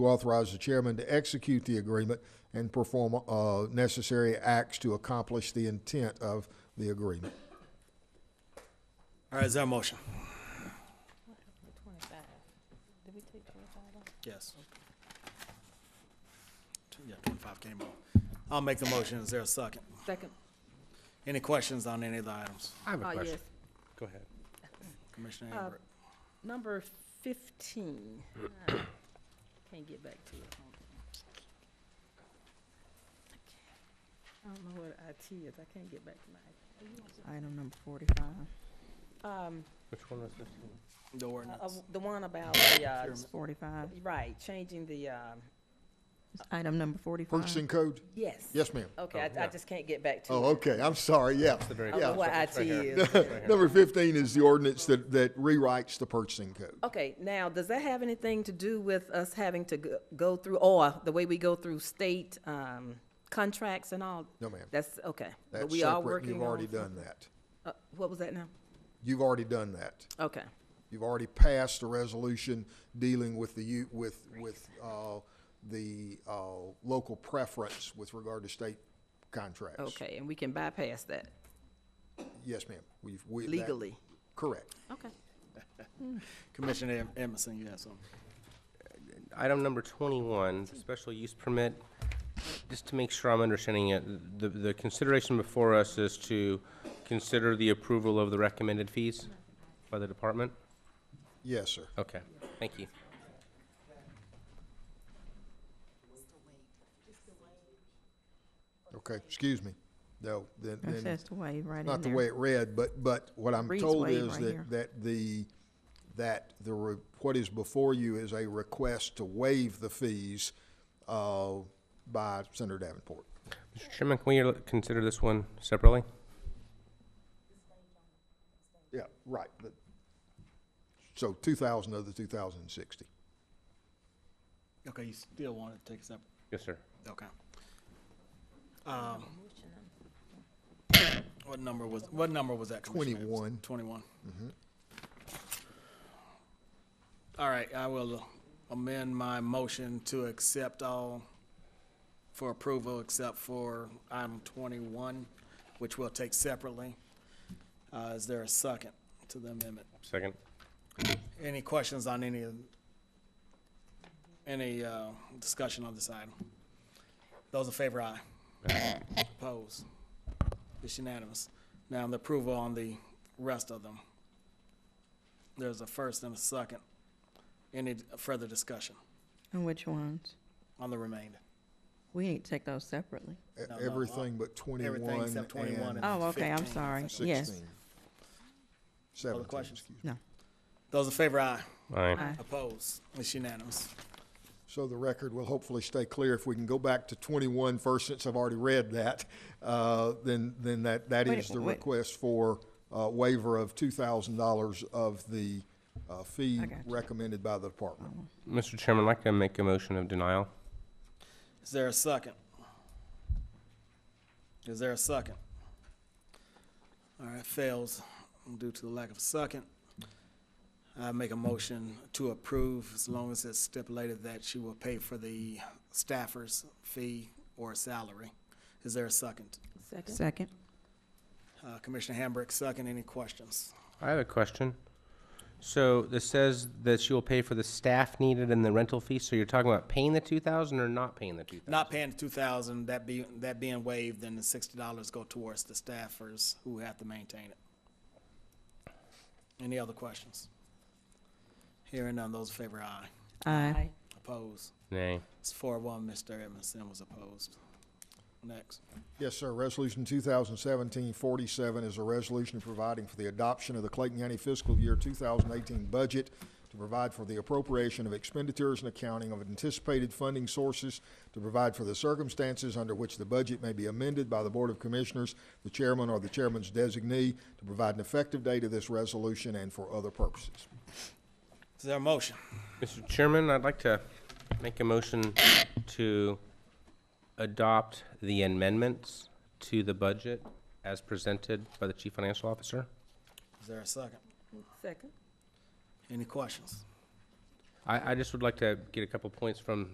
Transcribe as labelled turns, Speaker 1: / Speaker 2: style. Speaker 1: to authorize the chairman to execute the agreement and perform uh, necessary acts to accomplish the intent of the agreement.
Speaker 2: All right, is there a motion?
Speaker 3: Twenty-five. Did we take twenty-five off?
Speaker 2: Yes. Two- Yeah, twenty-five came off. I'll make the motion. Is there a second?
Speaker 3: Second.
Speaker 2: Any questions on any of the items?
Speaker 4: I have a
Speaker 3: Oh,
Speaker 4: question.
Speaker 3: yes. Uh,
Speaker 4: Go ahead.
Speaker 2: Commissioner Amber,
Speaker 3: Number fifteen. Can't get back to it. Hold on. I don't know what IT is. I can't get back to my,
Speaker 5: Item number forty-five,
Speaker 3: um,
Speaker 4: Which one was this?
Speaker 2: the
Speaker 3: uh,
Speaker 2: ordinance.
Speaker 3: the one about the, uh,
Speaker 2: Procurement.
Speaker 5: it's forty-five.
Speaker 3: right, changing the, um,
Speaker 5: It's Item number forty-five.
Speaker 1: Purchasing code?
Speaker 3: yes.
Speaker 1: Yes, ma'am.
Speaker 3: Okay,
Speaker 4: Oh,
Speaker 3: I, I
Speaker 4: yeah.
Speaker 3: just can't get back to it.
Speaker 1: Oh, okay, I'm sorry, yeah.
Speaker 4: The very
Speaker 3: I don't know
Speaker 1: Yeah.
Speaker 3: what
Speaker 4: It's
Speaker 3: IT
Speaker 4: right here.
Speaker 3: is.
Speaker 1: Number fifteen is the ordinance that, that rewrites the purchasing code.
Speaker 3: Okay, now, does that have anything to do with us having to go- go through, or the way we go through state um, contracts and all?
Speaker 1: No, ma'am.
Speaker 3: That's, okay. But
Speaker 1: That's
Speaker 3: we are
Speaker 1: separate, and
Speaker 3: working
Speaker 1: you've
Speaker 3: on-
Speaker 1: already done that.
Speaker 3: Uh, What was that now?
Speaker 1: You've already done that.
Speaker 3: Okay,
Speaker 1: You've already passed a resolution dealing with the, u- with, with, uh, the, uh, local preference with regard to state contracts.
Speaker 3: okay, and we can bypass that
Speaker 1: Yes, ma'am. We've, we. that-
Speaker 3: legally?
Speaker 1: Correct.
Speaker 3: Okay.
Speaker 2: Commissioner Em- Emerson, you have something?
Speaker 4: Item number twenty-one, the special use permit, just to make sure I'm understanding it, the, the consideration before us is to consider the approval of the recommended fees by the department?
Speaker 1: Yes, sir.
Speaker 4: Okay, thank you.
Speaker 1: Okay, excuse me. No, then,
Speaker 5: It
Speaker 1: then,
Speaker 5: says to waive right in there.
Speaker 1: not the way it read, but, but what I'm
Speaker 5: Reads
Speaker 1: told
Speaker 5: way
Speaker 1: is
Speaker 5: right here.
Speaker 1: that, that the, that the, re- what is before you is a request to waive the fees, uh, by Senator Davenport.
Speaker 4: Mr. Chairman, can we uh, consider this one separately?
Speaker 1: Yeah, right. but- So two thousand of the two thousand and sixty.
Speaker 2: Okay, you still want to take a step?
Speaker 4: Yes, sir.
Speaker 2: Okay. Um, What number was, what number was that? Commissioner Evans?
Speaker 1: 21.
Speaker 2: Twenty-one. All right, I will amend my motion to accept all for approval except for item twenty-one, which we'll take separately. Uh, is there a second to the amendment?
Speaker 4: Second.
Speaker 2: Any questions on any, of- any, uh, discussion on this item? Those in favor, aye. Opposed? It's unanimous. Now, the approval on the rest of them. There's a first and a second. Any further discussion
Speaker 5: And which ones?
Speaker 2: on the remainder?
Speaker 5: We need to take those separately.
Speaker 1: E-
Speaker 2: no, no.
Speaker 1: Everything but twenty-one and
Speaker 2: Everything except 21 and-
Speaker 5: Oh, okay, I'm
Speaker 2: 15,
Speaker 5: sorry. Yes.
Speaker 1: sixteen. Seventeen,
Speaker 2: questions?
Speaker 1: excuse me.
Speaker 5: No.
Speaker 2: Those in favor, aye.
Speaker 4: Aye.
Speaker 5: Aye.
Speaker 2: Opposed? It's unanimous.
Speaker 1: So the record will hopefully stay clear. If we can go back to 21 first, since I've already read that, uh, then, then that, that
Speaker 5: Wait,
Speaker 1: is the
Speaker 5: wait.
Speaker 1: request for uh, waiver of $2,000 of the uh, fee
Speaker 5: I got you.
Speaker 1: recommended by the department.
Speaker 4: Mr. Chairman, I'd like to make a motion of denial.
Speaker 2: Is there a second? Is there a second? All right, fails due to the lack of second. I make a motion to approve as long as it's stipulated that she will pay for the staffer's fee or salary. Is there a second?
Speaker 3: Second?
Speaker 5: Second.
Speaker 2: Uh, Commissioner Hambrick, second. Any questions?
Speaker 4: I have a question. So this says that she will pay for the staff needed and the rental fee, so you're talking about paying the two thousand or not paying the two thousand?
Speaker 2: Not paying two thousand, that be, that being waived, then the sixty dollars go towards the staffers who have to maintain it. Any other questions? Hearing none, those in favor, aye.
Speaker 5: Aye.
Speaker 2: Opposed?
Speaker 4: Nay.
Speaker 2: It's four one, Mr. Edmondson was opposed. Next.
Speaker 1: Yes, sir. Resolution 2017-47 is a resolution providing for the adoption of the Clayton County fiscal year 2018 budget to provide for the appropriation of expenditures and accounting of anticipated funding sources, to provide for the circumstances under which the budget may be amended by the Board of Commissioners, the chairman or the chairman's designee, to provide an effective date of this resolution and for other purposes.
Speaker 2: Is there a motion?
Speaker 4: Mr. Chairman, I'd like to make a motion to adopt the amendments to the budget as presented by the Chief Financial Officer.
Speaker 2: Is there a second?
Speaker 3: Second?
Speaker 2: Any questions?
Speaker 4: I, I just would like to get a couple points from